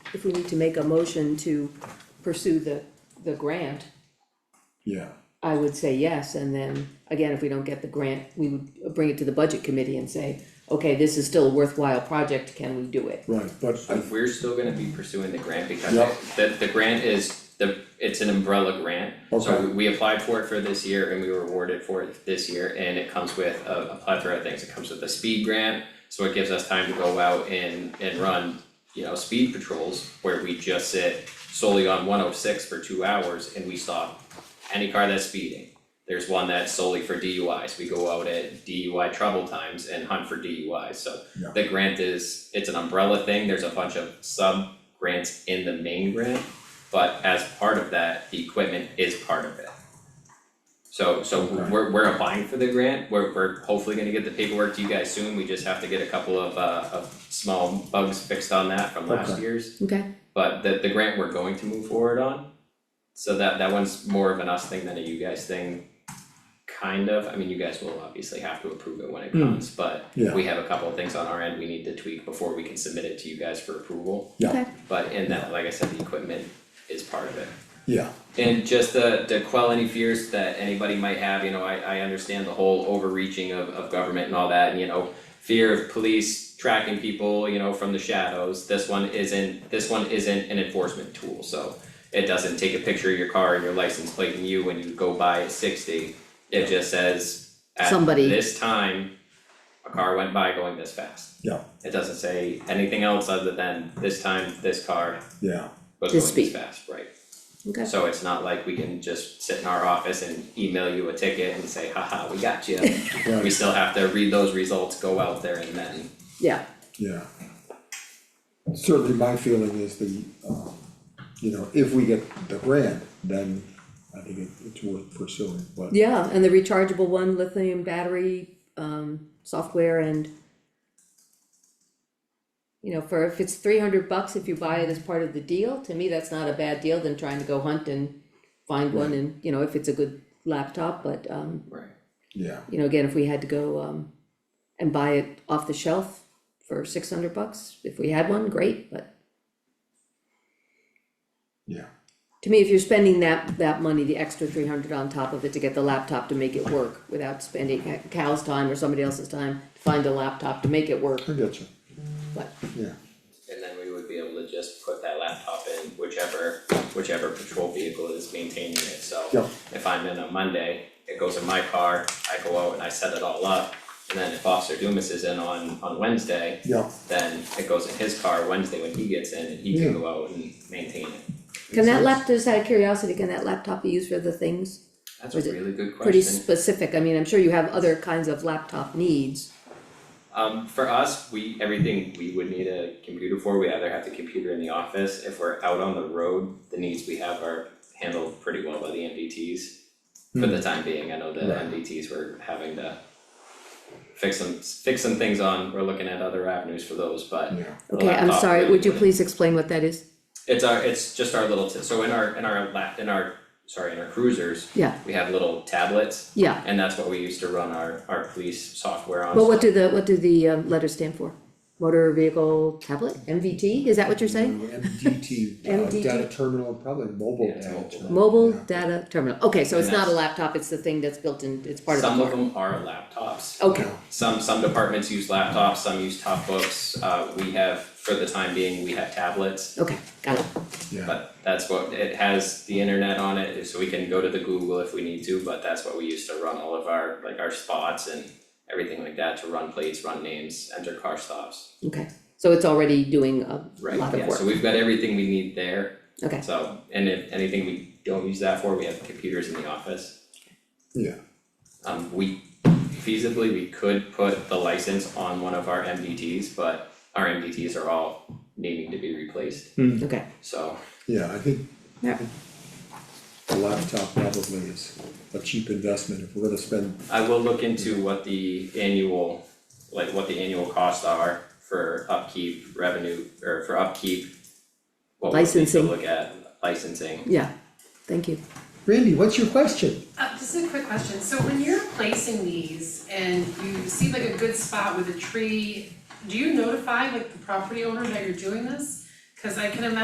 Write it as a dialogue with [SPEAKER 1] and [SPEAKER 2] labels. [SPEAKER 1] if we need to make a motion to pursue the, the grant,
[SPEAKER 2] yeah,
[SPEAKER 1] I would say yes, and then, again, if we don't get the grant, we would bring it to the budget committee and say, okay, this is still a worthwhile project, can we do it?
[SPEAKER 2] right, but I,
[SPEAKER 3] We're still gonna be pursuing the grant because
[SPEAKER 2] Yeah.
[SPEAKER 3] the the grant is the, it's an umbrella grant. So
[SPEAKER 2] Okay.
[SPEAKER 3] we- we applied for it for this year and we were awarded for it this year and it comes with a a plethora of things. It comes with a speed grant, so it gives us time to go out and and run, you know, speed patrols where we just sit solely on one oh six for two hours and we stop any car that's speeding. There's one that's solely for DUIs, we go out at DUI trouble times and hunt for DUIs, so
[SPEAKER 2] Yeah.
[SPEAKER 3] the grant is, it's an umbrella thing, there's a bunch of sub grants in the main grant, but as part of that, the equipment is part of it. So so
[SPEAKER 2] Okay.
[SPEAKER 3] we're we're applying for the grant, we're we're hopefully gonna get the paperwork to you guys soon, we just have to get a couple of uh of small bugs fixed on that from last
[SPEAKER 2] Okay.
[SPEAKER 3] year's.
[SPEAKER 1] Okay,
[SPEAKER 3] But the the grant we're going to move forward on, so that that one's more of an us thing than a you guys thing. Kind of, I mean, you guys will obviously have to approve it when it
[SPEAKER 4] Hmm.
[SPEAKER 3] comes, but
[SPEAKER 2] Yeah.
[SPEAKER 3] we have a couple of things on our end we need to tweak before we can submit it to you guys for approval.
[SPEAKER 2] Yeah.
[SPEAKER 1] okay,
[SPEAKER 3] But in that, like I said, the equipment is part of it.
[SPEAKER 2] yeah,
[SPEAKER 3] And just to to quell any fears that anybody might have, you know, I I understand the whole overreaching of of government and all that, and you know, fear of police tracking people, you know, from the shadows, this one isn't, this one isn't an enforcement tool, so it doesn't take a picture of your car and your license plate and you when you go by at sixty, it just says at
[SPEAKER 1] Somebody-
[SPEAKER 3] this time, a car went by going this fast.
[SPEAKER 2] yeah,
[SPEAKER 3] It doesn't say anything else other than this time, this car
[SPEAKER 2] yeah,
[SPEAKER 3] was
[SPEAKER 1] This
[SPEAKER 3] going this
[SPEAKER 1] speed.
[SPEAKER 3] fast, right?
[SPEAKER 1] okay.
[SPEAKER 3] So it's not like we can just sit in our office and email you a ticket and say, haha, we got you. We
[SPEAKER 2] right,
[SPEAKER 3] still have to read those results, go out there and then,
[SPEAKER 1] Yeah,
[SPEAKER 2] yeah. Certainly, my feeling is the, um, you know, if we get the grant, then I think it, it's worth pursuing, but,
[SPEAKER 1] yeah, and the rechargeable one, lithium battery, um, software and. You know, for if it's three hundred bucks, if you buy it as part of the deal, to me, that's not a bad deal than trying to go hunt and find one and, you know, if it's a good laptop, but, um,
[SPEAKER 3] right,
[SPEAKER 2] yeah,
[SPEAKER 1] you know, again, if we had to go um and buy it off the shelf for six hundred bucks, if we had one, great, but
[SPEAKER 2] yeah,
[SPEAKER 1] to me, if you're spending that that money, the extra three hundred on top of it to get the laptop to make it work without spending Cal's time or somebody else's time to find a laptop to make it work,
[SPEAKER 2] I get you,
[SPEAKER 1] but
[SPEAKER 2] yeah,
[SPEAKER 3] and then we would be able to just put that laptop in whichever, whichever patrol vehicle is maintaining it, so.
[SPEAKER 2] Yeah.
[SPEAKER 3] If I'm in on Monday, it goes in my car, I go out and I set it all up, and then if Officer Dumas is in on on Wednesday,
[SPEAKER 2] yeah,
[SPEAKER 3] then it goes in his car Wednesday when he gets in and he can
[SPEAKER 2] Yeah.
[SPEAKER 3] go out and maintain it.
[SPEAKER 1] can that
[SPEAKER 2] Makes
[SPEAKER 1] lap, just out of curiosity, can that laptop be used for other things?
[SPEAKER 3] That's
[SPEAKER 1] Was
[SPEAKER 3] a
[SPEAKER 1] it
[SPEAKER 3] really good question.
[SPEAKER 1] Pretty specific, I mean, I'm sure you have other kinds of laptop needs,
[SPEAKER 3] Um, for us, we, everything we would need a computer for, we either have the computer in the office, if we're out on the road, the needs we have are handled pretty well by the MDTs. For
[SPEAKER 1] Hmm.
[SPEAKER 3] the time being, I know the
[SPEAKER 2] Right.
[SPEAKER 3] MDTs were having to fix some, fix some things on, we're looking at other avenues for those, but
[SPEAKER 2] yeah,
[SPEAKER 3] the
[SPEAKER 1] okay, I'm
[SPEAKER 3] laptop
[SPEAKER 1] sorry,
[SPEAKER 3] really
[SPEAKER 1] would you
[SPEAKER 3] wouldn't.
[SPEAKER 1] please explain what that is?
[SPEAKER 3] It's our, it's just our little, t- so in our, in our lap, in our, sorry, in our cruisers,
[SPEAKER 1] Yeah,
[SPEAKER 3] we have little tablets,
[SPEAKER 1] yeah,
[SPEAKER 3] and that's what we used to run our, our police software on.
[SPEAKER 1] but what do the, what do the um, letters stand for? Motor vehicle tablet, MVT, is that what you're saying?
[SPEAKER 2] MDT, uh,
[SPEAKER 1] MDT.
[SPEAKER 2] data terminal, probably mobile
[SPEAKER 3] Yeah, it's
[SPEAKER 2] data
[SPEAKER 3] mobile.
[SPEAKER 2] terminal.
[SPEAKER 1] Mobile
[SPEAKER 2] Yeah.
[SPEAKER 1] data terminal, okay, so
[SPEAKER 3] And
[SPEAKER 1] it's not a
[SPEAKER 3] that's-
[SPEAKER 1] laptop, it's the thing that's built in, it's part of the
[SPEAKER 3] Some
[SPEAKER 1] car.
[SPEAKER 3] of them are laptops.
[SPEAKER 1] Okay,
[SPEAKER 3] Some some departments use laptops, some use top books, uh we have, for the time being, we have tablets.
[SPEAKER 1] okay, got it,
[SPEAKER 2] Yeah,
[SPEAKER 3] But that's what, it has the internet on it, so we can go to the Google if we need to, but that's what we use to run all of our, like our spots and everything like that, to run plates, run names, enter car stops.
[SPEAKER 1] okay, so it's already doing a
[SPEAKER 3] Right,
[SPEAKER 1] lot of
[SPEAKER 3] yeah, so
[SPEAKER 1] work,
[SPEAKER 3] we've got everything we need there,
[SPEAKER 1] okay,
[SPEAKER 3] so, and if anything we don't use that for, we have computers in the office.
[SPEAKER 2] yeah,
[SPEAKER 3] Um, we feasibly, we could put the license on one of our MDTs, but our MDTs are all needing to be replaced,
[SPEAKER 1] okay,
[SPEAKER 3] so.
[SPEAKER 2] yeah, I think
[SPEAKER 1] yeah,
[SPEAKER 2] a laptop probably is a cheap investment if we're gonna spend,
[SPEAKER 3] I will look into what the annual, like what the annual costs are for upkeep revenue, or for upkeep. What we need to
[SPEAKER 1] Licensing.
[SPEAKER 3] look at, licensing,
[SPEAKER 1] yeah, thank you.
[SPEAKER 2] Randy, what's your question?
[SPEAKER 5] Uh, just a quick question, so when you're placing these and you see like a good spot with a tree, do you notify like the property owner that you're doing this? Cause I can imagine